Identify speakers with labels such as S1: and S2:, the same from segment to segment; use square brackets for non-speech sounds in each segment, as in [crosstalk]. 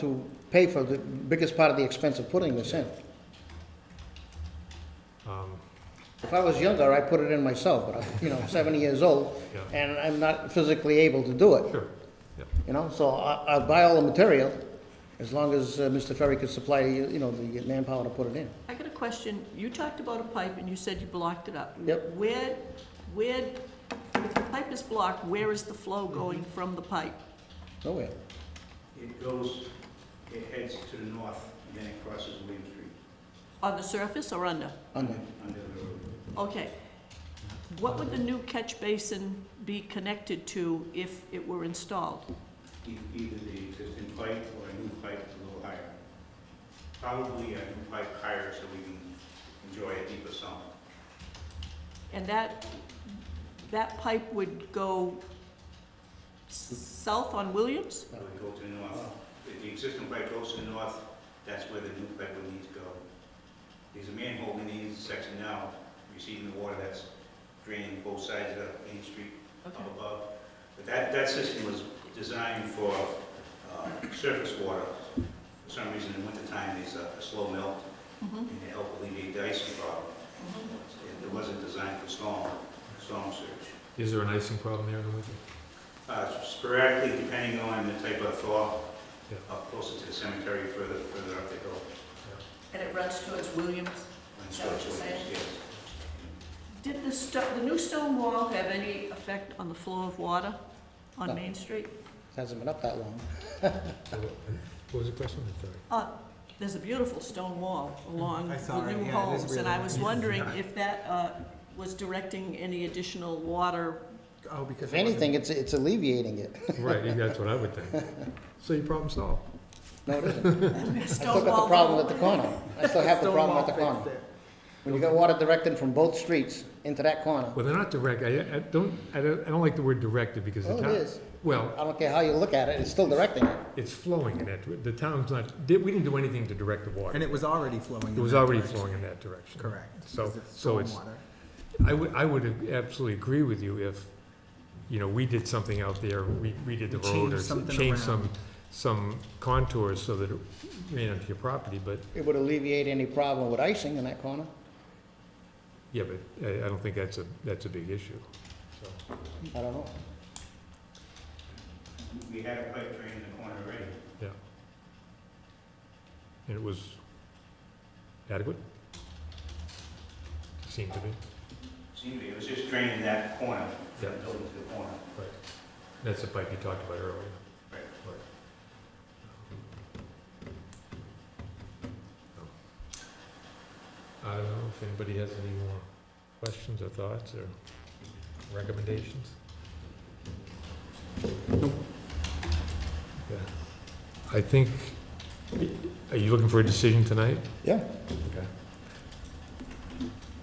S1: to pay for the biggest part of the expense of putting this in.
S2: Um,
S1: If I was younger, I'd put it in myself, but I'm, you know, 70 years old,
S2: Yeah.
S1: and I'm not physically able to do it,
S2: Sure, yeah,
S1: you know? So I- I'll buy all the material, as long as uh, Mr. Ferry could supply, you you know, the manpower to put it in.
S3: I got a question. You talked about a pipe and you said you blocked it up.
S1: Yep.
S3: Where, where, if the pipe is blocked, where is the flow going from the pipe?
S1: Nowhere.
S4: It goes, it heads to the north, and then it crosses William Street.
S3: On the surface or under?
S1: Under.
S4: Under the road.
S3: Okay. What would the new catch basin be connected to if it were installed?
S4: E- Either the existing pipe or a new pipe a little higher. Probably a new pipe higher so we can enjoy a deeper sump.
S3: And that, that pipe would go s- south on Williams?
S4: It would go to the north. If the existing pipe goes to the north, that's where the new pipe would need to go. There's a manhole in the intersection now, receiving the water that's draining both sides of Main Street
S3: Okay.
S4: up above. But that, that system was designed for uh, surface water. For some reason, in wintertime, there's a a slow melt, and it helped alleviate the icing problem. It- It wasn't designed for storm, storm surge.
S2: is there an icing problem there in the winter?
S4: Uh, Sporadically, depending on the type of thaw,
S2: Yeah.
S4: up closer to the cemetery, further, further up the hill.
S3: And it runs towards Williams?
S4: when
S3: Is that what
S4: storage
S3: you're saying?
S4: is- yes.
S3: Did the sto, the new stone wall have any effect on the flow of water
S1: No.
S3: on Main Street?
S1: It Hasn't been up that long.
S2: So What what was the question? I'm sorry.
S3: Uh, there's a beautiful stone wall along
S5: I
S3: the
S5: saw it,
S3: new
S5: yeah, it
S3: homes,
S5: is
S3: and
S5: really
S3: I was
S5: nice.
S3: wondering if that, uh, was directing any additional water.
S5: Oh, because.
S1: If anything, it's it's alleviating it. [laughs]
S2: Right, yeah, that's what I would think. So your problem solved.
S1: No, it isn't. I
S3: Stone
S1: still got the
S3: wall
S1: problem
S3: though.
S1: at the corner. I still have the problem at the corner. When you got water directed from both streets into that corner,
S2: Well, they're not direct, I, I don't, I don't, I don't like the word directed because the
S1: Oh, it
S2: town.
S1: is.
S2: Well,
S1: I don't care how you look at it, it's still directing it.
S2: it's flowing in that, dir- the town's not, did- we didn't do anything to direct the
S5: And
S2: water.
S5: it was already flowing.
S2: It was already flowing in that direction.
S5: Correct.
S2: So,
S5: because
S2: so it's,
S5: stormwater.
S2: I would, I would absolutely agree with you if, you know, we did something out there, we redid the
S5: We
S2: road
S5: changed
S2: or
S5: something
S2: changed some,
S5: around.
S2: some contours so that it ran into your property, but
S1: It would alleviate any problem with icing in that corner.
S2: Yeah, but I, I don't think that's a, that's a big issue, so.
S1: I don't know.
S4: We had a pipe drain in the corner already.
S2: And it was adequate? Seemed to be.
S4: Seemed to be, it was just draining that corner, from the
S2: Yeah.
S4: building to the corner.
S2: That's the pipe you talked about earlier.
S4: Right.
S2: I don't know if anybody has any more questions or thoughts or recommendations? Yeah. I think, are you looking for a decision tonight?
S1: Yeah.
S2: Okay.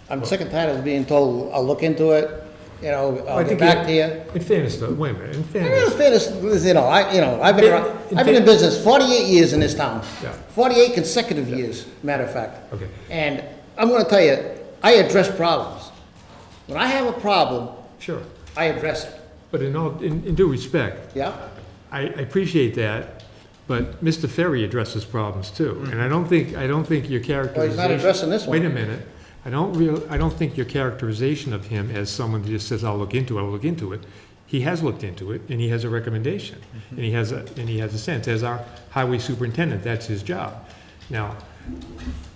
S1: I'm sick and tired of being told, I'll look into it, you know,
S2: I
S1: I'll get
S2: think
S1: back
S2: it-
S1: to you.
S2: In fairness, though, wait a minute, in
S1: In
S2: fairness,
S1: fairness, you know, I, you know, I've been, around-
S2: In- in
S1: I've been in
S2: fair-
S1: business forty-eight years in this town.
S2: Yeah.
S1: Forty-eight consecutive years, matter of fact.
S2: okay,
S1: And I'm gonna tell you, I address problems. When I have a problem,
S2: sure.
S1: I address it,
S2: But in all, in in due respect,
S1: yeah?
S2: I I appreciate that, but Mr. Ferry addresses problems too. And I don't think, I don't think your characterization.
S1: Mm. Well, he's not addressing this
S2: Wait a
S1: one.
S2: minute. I don't real, I don't think your characterization of him as someone who just says, I'll look into it, I'll look into it. He has looked into it, and he has a recommendation,
S1: Mm-hmm.
S2: and he has a, and he has a sense. As our highway superintendent, that's his job. Now,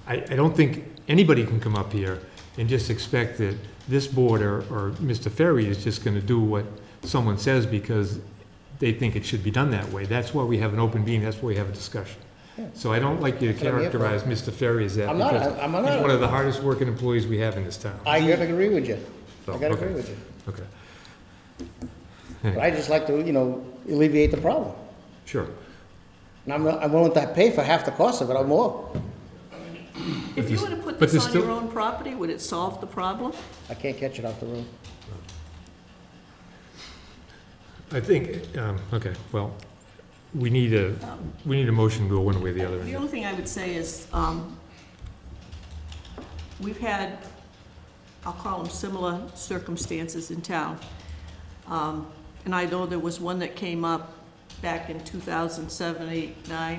S2: I, I don't think anybody can come up here and just expect that this board or, or Mr. Ferry is just gonna do what someone says because they think it should be done that way. That's why we have an open meeting, that's why we have a discussion. So I don't like you to
S1: That's what I'm here for.
S2: characterize Mr. Ferry as that.
S1: I'm not-
S2: because
S1: I'm not-
S2: He's one of the hardest working employees we have in this town.
S1: I gotta agree with you. I
S2: So,
S1: gotta
S2: Oh, okay.
S1: agree with you.
S2: Okay,
S1: But I just like to, you know, alleviate the problem.
S2: sure.
S1: And I'm, I'm willing to pay for half the cost of it or more.
S3: If you
S2: this-
S3: were to put
S2: but
S3: this on
S2: there's
S3: your
S2: still-
S3: own property, would it solve the problem?
S1: I can't catch it off the roof.
S2: I think, um, okay, well, we need a, we need a motion to go one way or the other.
S3: The only thing I would say is, um, we've had, I'll call them similar circumstances in town. Um, And I know there was one that came up back in 2007, 8, 9,